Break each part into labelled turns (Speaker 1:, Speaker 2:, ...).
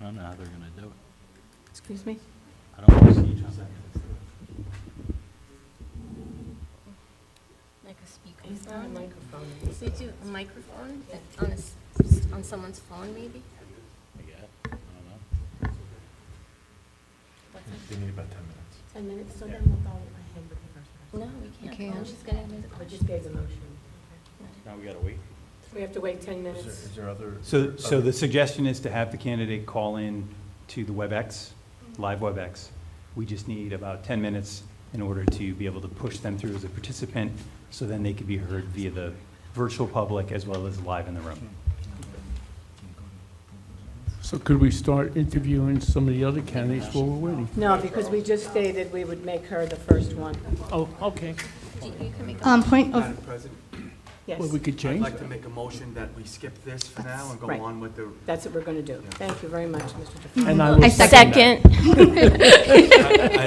Speaker 1: I don't know how they're gonna do it.
Speaker 2: Excuse me?
Speaker 1: I don't wanna see just
Speaker 3: Like a speaker.
Speaker 2: Is there a microphone?
Speaker 3: So you do a microphone that- on a s- on someone's phone, maybe?
Speaker 1: Yeah, I don't know.
Speaker 3: What's that?
Speaker 4: They need about 10 minutes.
Speaker 2: Ten minutes, so then we'll go ahead with the first
Speaker 3: No,
Speaker 2: person.
Speaker 3: we can't.
Speaker 5: You can't.
Speaker 3: Oh, she's gonna have
Speaker 2: I
Speaker 3: a
Speaker 2: just gave the motion.
Speaker 1: Now we gotta wait.
Speaker 2: We have to wait ten
Speaker 4: Is there-
Speaker 2: minutes.
Speaker 4: is there other?
Speaker 6: So, so
Speaker 4: other-
Speaker 6: the suggestion is to have the candidate call in to the WebEx, live WebEx. We just need about 10 minutes in order to be able to push them through as a participant, so then they could be heard via the virtual public as well as live in the room.
Speaker 7: So could we start interviewing some of the other candidates while we're waiting?
Speaker 2: No, because we just stated we would make her the first one.
Speaker 7: Oh, okay.
Speaker 3: You can make a
Speaker 5: Um, point of,
Speaker 8: Madam President,
Speaker 2: Yes,
Speaker 7: Well, we could
Speaker 8: I'd
Speaker 7: change
Speaker 8: like to
Speaker 7: that.
Speaker 8: make a motion that we skip this for now and go
Speaker 2: Right.
Speaker 8: on with the,
Speaker 2: that's what we're gonna do. Thank you very much, Mr. DeFranco.
Speaker 7: And I will that.
Speaker 4: I I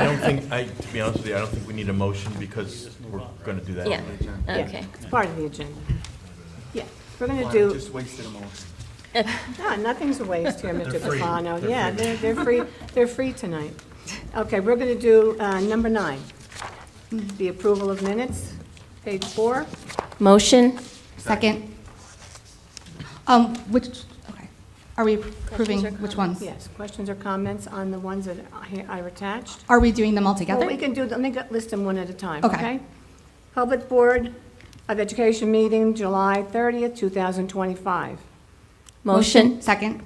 Speaker 4: don't think, I, to be honest with you, I don't think we need a motion because we're going to do that.
Speaker 3: Yeah,
Speaker 8: agenda.
Speaker 2: Yeah,
Speaker 3: okay.
Speaker 2: It's part of the agenda. Yeah, we're gonna
Speaker 8: Fine, I
Speaker 2: do,
Speaker 8: just wasted a moment.
Speaker 2: no, nothing's a waste here, Mr.
Speaker 4: They're free.
Speaker 2: Cafano.
Speaker 4: They're
Speaker 2: Yeah,
Speaker 4: free.
Speaker 2: they're, they're free, they're free tonight. Okay, we're gonna do, uh, number nine. The approval of minutes, page four.
Speaker 3: Motion?
Speaker 5: second. Um, which, okay, are we approving
Speaker 3: Questions or
Speaker 5: which ones?
Speaker 2: Yes, questions or comments on the ones that I I attached?
Speaker 5: Are we doing them all
Speaker 2: Well,
Speaker 5: together?
Speaker 2: we can do, let me go- list them one at a time,
Speaker 5: Okay.
Speaker 2: okay? Public Board of Education meeting, July 30th, 2025.
Speaker 3: Motion?
Speaker 5: Second,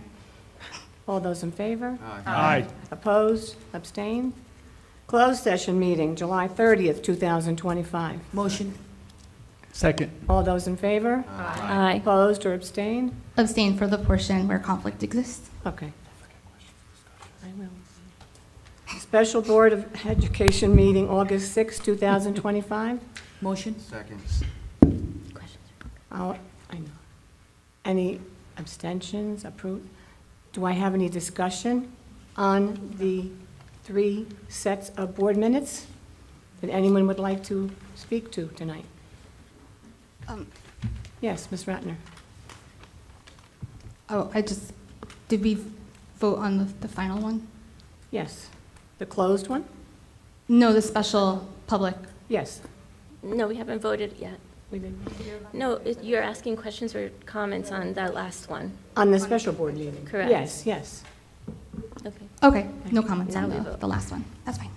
Speaker 2: All those in favor?
Speaker 8: Aye.
Speaker 7: Aye.
Speaker 2: Opposed? Abstained? Closed session meeting, July 30th, 2025.
Speaker 7: Second.
Speaker 2: All those in favor?
Speaker 3: Aye.
Speaker 2: Opposed or abstained?
Speaker 5: abstain for the portion where conflict exists.
Speaker 2: Okay. I will. Special Board of Education meeting, August 6th, 2025.
Speaker 9: Motion?
Speaker 8: Second.
Speaker 2: I'll- I know. Any abstentions, approved? Do I have any discussion on the three sets of board minutes that anyone would like to speak to tonight?
Speaker 5: Um,
Speaker 2: Yes, Ms. Ratner?
Speaker 5: Oh, I just, did we vote on the, the final one?
Speaker 2: Yes. The closed one?
Speaker 5: No, the special public.
Speaker 2: Yes.
Speaker 3: No, we haven't voted yet.
Speaker 2: we did.
Speaker 3: No, it- you're asking questions or comments on that last one.
Speaker 2: On the special board meeting?
Speaker 3: Correct.
Speaker 2: Yes, yes.
Speaker 3: Okay.
Speaker 5: Okay, no comments
Speaker 3: Now
Speaker 5: on
Speaker 3: we
Speaker 5: the,
Speaker 3: vote.
Speaker 5: the last one. That's fine.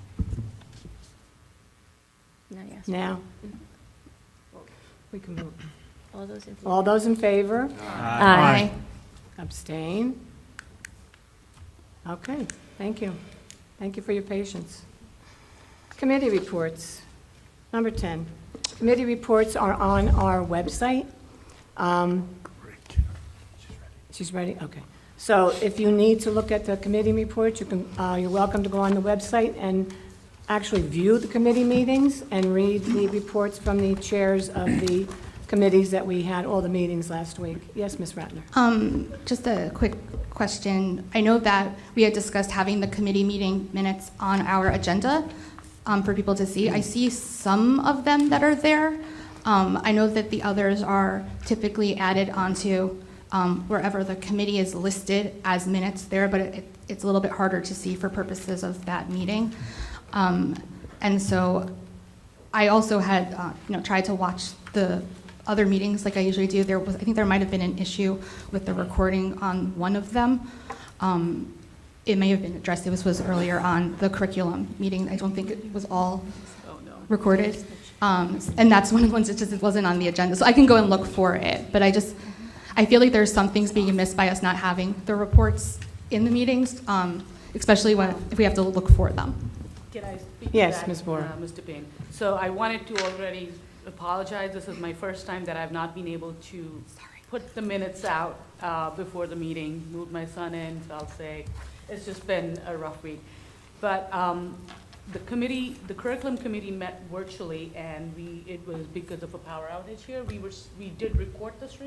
Speaker 3: Now you ask.
Speaker 2: Now? We can move.
Speaker 3: All those in favor?
Speaker 2: All those in favor?
Speaker 3: Aye.
Speaker 2: Abstain? Okay, thank you. Thank you for your patience. Committee reports. Number 10, committee reports are on our website. Um, She's ready, okay. So if you need to look at the committee reports, you can, uh, you're welcome to go on the website and actually view the committee meetings and read the reports from the chairs of the committees that we had, all the meetings last week. Yes, Ms. Ratner?
Speaker 5: Um, just a quick question. I know that we had discussed having the committee meeting minutes on our agenda um, for people to see. I see some of them that are there. Um, I know that the others are typically added onto um, wherever the committee is listed as minutes there, but it, it's a little bit harder to see for purposes of that meeting. Um, and so I also had, uh, you know, tried to watch the other meetings like I usually do. There was, I think there might have been an issue with the recording on one of them. Um, It may have been addressed, this was earlier on the curriculum meeting. I don't think it was all recorded. Um, And that's one of the ones that just it wasn't on the agenda. So I can go and look for it, but I just, I feel like there's some things being missed by us not having the reports in the meetings, um, especially when, if we have to look for them.
Speaker 9: Can I speak to
Speaker 2: Yes,
Speaker 9: that,
Speaker 2: Ms. Moore.
Speaker 9: uh, Mr. Payne. So I wanted to already apologize. This is my first time that I've not been able to put the minutes out uh, before the meeting. Moved my son in, fell sick. It's just been a rough week. But um, the committee, the curriculum committee met virtually, and we, it was because of a power outage here. We were, s- we did record the stream.